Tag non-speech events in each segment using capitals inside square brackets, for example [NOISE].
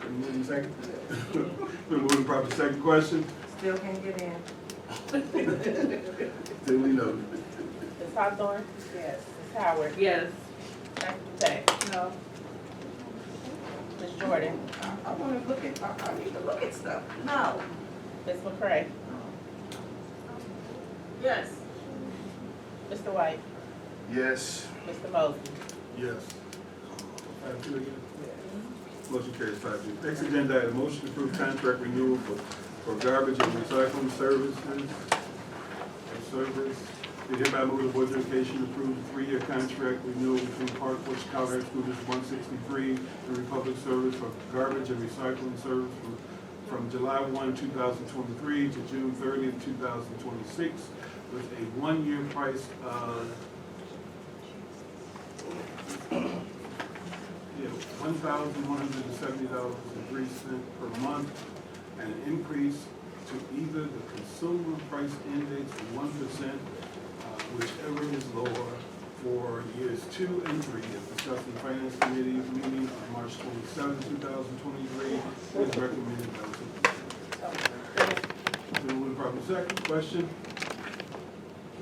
Been moved second. [LAUGHS] Been moved properly second question, Still can't get in. duly noted. Ms. Hawthorne? Yes. Ms. Howard? Yes. Dr. Dupay? No. Ms. Jordan? I, I wanna look at, I, I need to look at stuff. No. Ms. McCray? Yes. Mr. White? Yes. Mr. Mosley? Yes. Five two again? Motion carries five two. Next agenda item, motion to approve contract renewal for, for garbage and recycling services. and Service, we hereby move the Board of Education approve the three-year contract renewal between Park West Colorado School District one sixty-three and Republic Service for garbage and recycling service from, from July one, two thousand twenty-three to June thirtieth, two thousand twenty-six with a one-year price of Yeah, one thousand one hundred and seventy dollars and three cents per month, and an increase to either the consumer price index of one percent, uh, whichever is lower, for years two and three, as discussed in finance committee meeting on March twenty-seven, two thousand twenty-three, is recommended by the superintendent. Been moved properly second, question,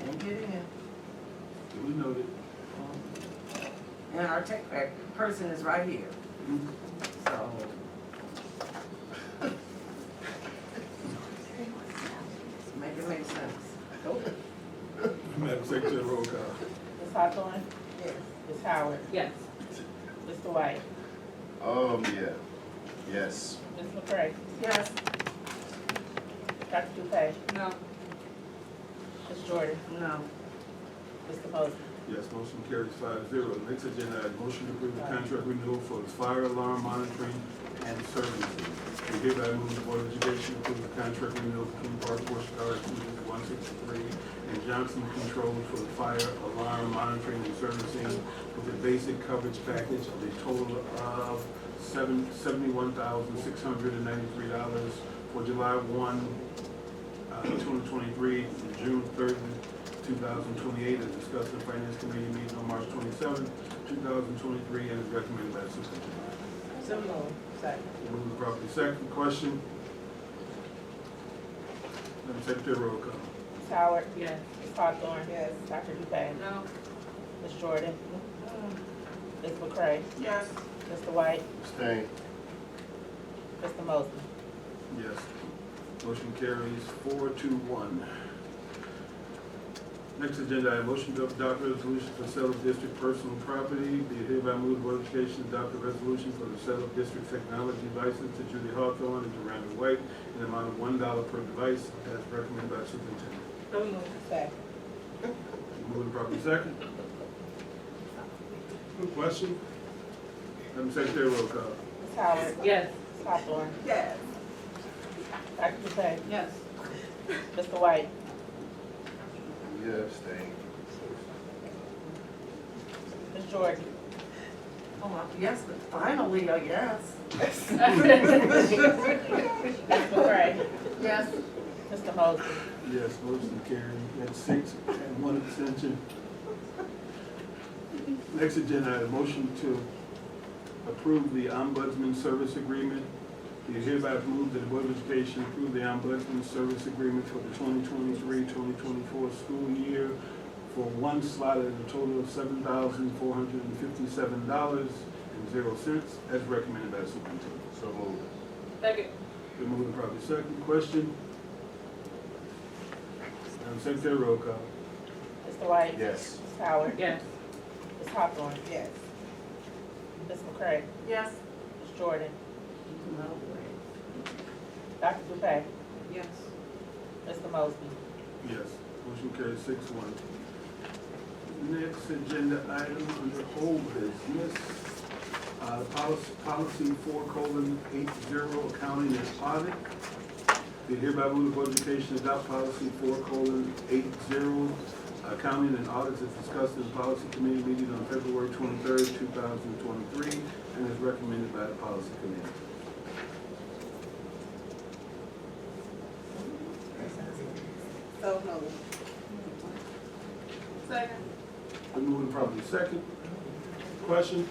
Can't get in. duly noted. And our tech back person is right here, so. [LAUGHS] Make it make sense. Madam Secretary, roll call. Ms. Hawthorne? Yes. Ms. Howard? Yes. Mr. White? Um, yeah, yes, Ms. McCray? Yes. Dr. Dupay? No. Ms. Jordan? No. Mr. Mosley? Yes, motion carries five zero. Next agenda, item, motion to approve the contract renewal for the fire alarm monitoring and services. We hereby move the Board of Education to approve the contract renewal between Park Forest Fire District one sixty-three and Johnson Control for the fire alarm monitoring and servicing with a basic coverage package of a total of seven, seventy-one thousand, six hundred and ninety-three dollars for July one, uh, 2023, to June 30, 2028, as discussed in Finance Committee meeting on March 27, 2023, and is recommended by the superintendent. So moved. Second. Move the property second. Question? Madam Secretary, roll call. Ms. Howard? Yes. Ms. Hawthorne? Yes. Dr. Dupay? No. Ms. Jordan? Ms. McCray? Yes. Mr. White? stay, Mr. Mosley? Yes. Motion carries four to one. Next agenda, item: motion to adopt resolution for sale of district personal property. Be it hereby moved, Board of Education adopt a resolution for the sale of district technology license to Judy Hawthorne and to Randall White in the amount of one dollar per device as recommended by superintendent. So moved. Second. Moving properly second. Question? Madam Secretary, roll call. Ms. Howard? Yes. Ms. Hawthorne? Yes. Dr. Dupay? Yes. Mr. White? yeah, stay, Ms. Jordan? Oh, I- yes, but finally, a yes. Ms. McCray? Yes. Mr. Mosley? Yes, motion carried. At six and one abstention. Next agenda, item: motion to approve the ombudsman service agreement. Be it hereby moved that the Board of Education approve the ombudsman service agreement for the 2023-2024 school year for one slot at a total of $7,457.00 as recommended by the superintendent. so move. Second. Been moved and properly second. Question? Madam Secretary, roll call. Mr. White? yes, Ms. Howard? Yes. Ms. Hawthorne? Yes. Ms. McCray? Yes. Ms. Jordan? No. Dr. Dupay? Yes. Mr. Mosby? Yes. Motion carries six one. Next agenda item under whole business, uh, policy, policy four colon eight zero, accounting and audit. Be hereby move the Board of Education adopt policy four colon eight zero, accounting and audits as discussed in the policy committee meeting on February twenty-third, two thousand twenty-three, and is recommended by the policy committee. So moved. Second. Been moved and properly second. Question?